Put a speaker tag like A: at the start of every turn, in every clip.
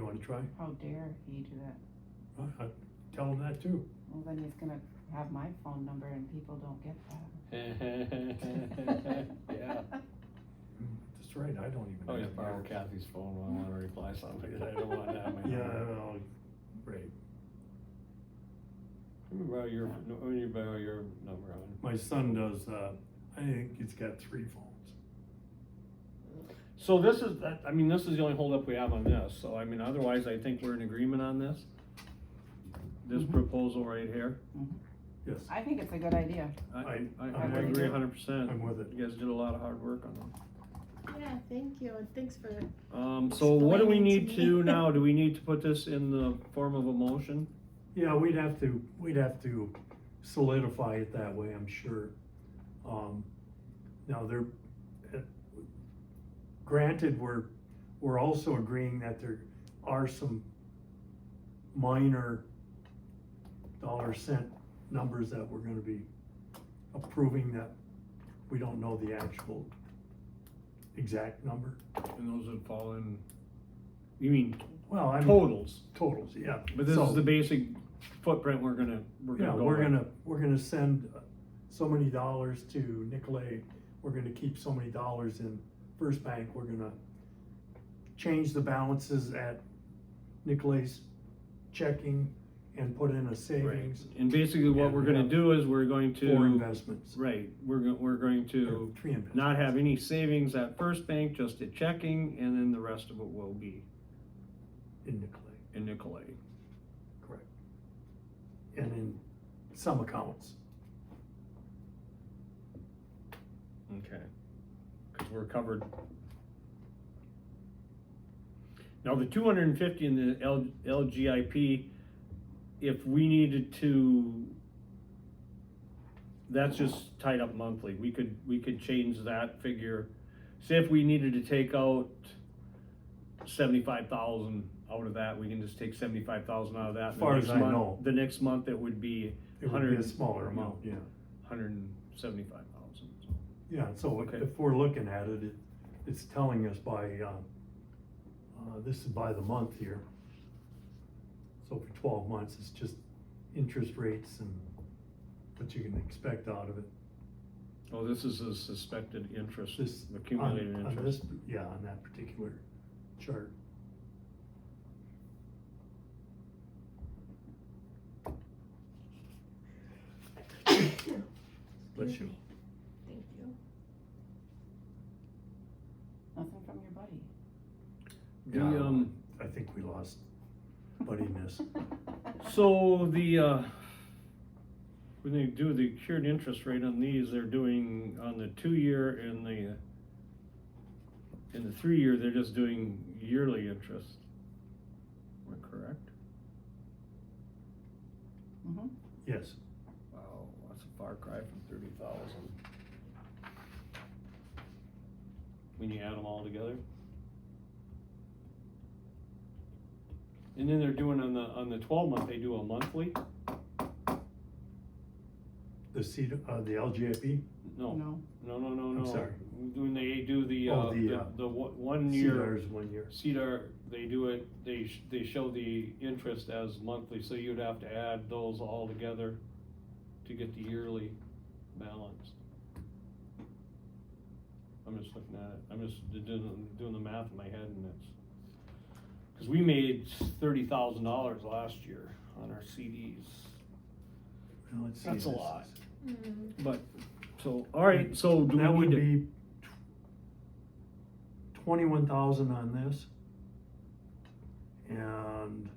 A: wanna try?
B: How dare he do that?
A: I, I tell him that too.
B: Well, then he's gonna have my phone number and people don't get that.
C: Yeah.
A: Mm, That's right, I don't even.
C: Always
A: have
C: borrow
A: yours.
C: Kathy's phone when I wanna reply something, I don't want that. in my
A: Yeah,
C: phone.
A: well, right,
C: Let me borrow your, no, let me borrow your number, hon.
A: my son does, uh, I think he's got three phones.
C: So this is, that- I mean, this is the only holdup we have on this, so I mean, otherwise, I think we're in agreement on this. This
B: Mhm.
C: proposal right here,
A: Yes,
B: Mm-hmm. I think it's a good idea.
C: I,
A: I-
C: I, I
A: I'm
B: with
C: agree
B: you.
C: a hundred percent.
A: I'm with it.
C: You guys did a lot of hard work on them.
D: Yeah, thank you, and thanks for,
C: Um, so what do we
D: Explaining
C: need
D: to
C: to do
D: me.
C: now? Do we need to put this in the form of a motion?
A: Yeah, we'd have to, we'd have to solidify it that way, I'm sure. Um, now they're, eh, granted, we're, we're also agreeing that there are some minor dollar cent numbers that we're gonna be approving that we don't know the actual exact number.
C: And those would fall in. You mean
A: Well, I'm,
C: totals,
A: totals, yeah.
C: but this
A: So-
C: is the basic footprint we're gonna, we're
A: Yeah,
C: gonna go
A: we're
C: with.
A: gonna, we're gonna send uh, so many dollars to Nicolay, we're gonna keep so many dollars in First Bank, we're gonna change the balances at Nicolay's checking and put in a savings
C: And basically what
A: Yeah,
C: we're gonna
A: yeah.
C: do is we're going
A: for
C: to,
A: investments.
C: right, we're, go- we're going to
A: or Tree investments.
C: not have any savings at First Bank, just at checking, and then the rest of it will be
A: In Nicolay,
C: in Nicolay.
A: correct. And in some accounts,
C: Okay. Cause we're covered. Now, the two hundred and fifty in the L, LGIP, if we needed to, that's just tied up monthly, we could, we could change that figure. Say if we needed to take out seventy-five thousand out of that, we can just take seventy-five thousand out of that.
A: As far
C: The next
A: as I
C: month-
A: know.
C: The next month, it would be
A: it would be a
C: 100,
A: smaller amount, yeah.
C: hundred and seventy-five thousand, so.
A: Yeah, so if-
C: Okay.
A: if we're looking at it, it, it's telling us by, um, uh, this is by the month here. So for twelve months, it's just interest rates and what you can expect out of it.
C: Oh, this is a suspected interest,
A: This-
C: accumulated
A: On- on
C: interest.
A: this- Yeah, on that particular chart. Bless you.
D: thank you.
B: Nothing from your buddy.
C: The,
A: Yeah.
C: um,
A: I think we lost buddiness.
C: so the, uh, when they do the cured interest rate on these, they're doing on the two-year and the, in the three-year, they're just doing yearly interest. Am I correct?
B: Mhm.
A: Yes,
C: Wow, that's a far cry from thirty thousand. When you add them all together? And then they're doing on the, on the twelve month, they do a monthly?
A: the C, uh, the LGIP,
C: No,
B: No,
C: no, no, no, no.
A: I'm sorry.
C: When they do the,
A: Oh,
C: uh,
A: the,
C: the,
A: uh,
C: the one one year,
A: CDR is one year.
C: CDR, they do it, they, sh- they show the interest as monthly, so you'd have to add those all together to get the yearly balance. I'm just looking at it, I'm just d- doing, doing the math in my head and it's, cause we made thirty thousand dollars last year on our CDs.
A: Now, let's see,
C: That's a
A: this
C: lot.
A: is-
D: Mm,
C: But, so, alright, so do
A: That
C: we
A: would
C: need to,
A: be twenty-one thousand on this. And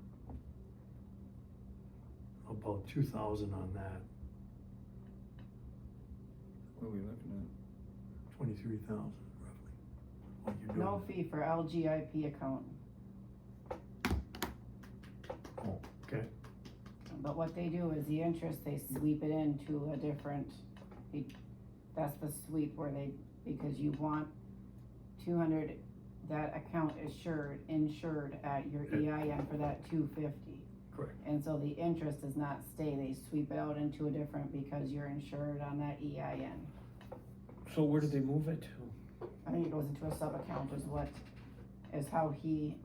A: about two thousand on that,
C: what are we looking
A: twenty-three thousand roughly. What you're
B: no
A: doing,
B: fee for LGIP account.
A: Oh, okay.
B: But what they do is the interest, they sweep it into a different, it- that's the sweep where they, because you want two hundred, that account is insured, insured at your EIN for that two fifty.
A: Correct.
B: And so the interest does not stay, they sweep it out into a different because you're insured on that E EIN.
C: at? So where did they move it to?
B: I think it goes into a sub-account is what, is how he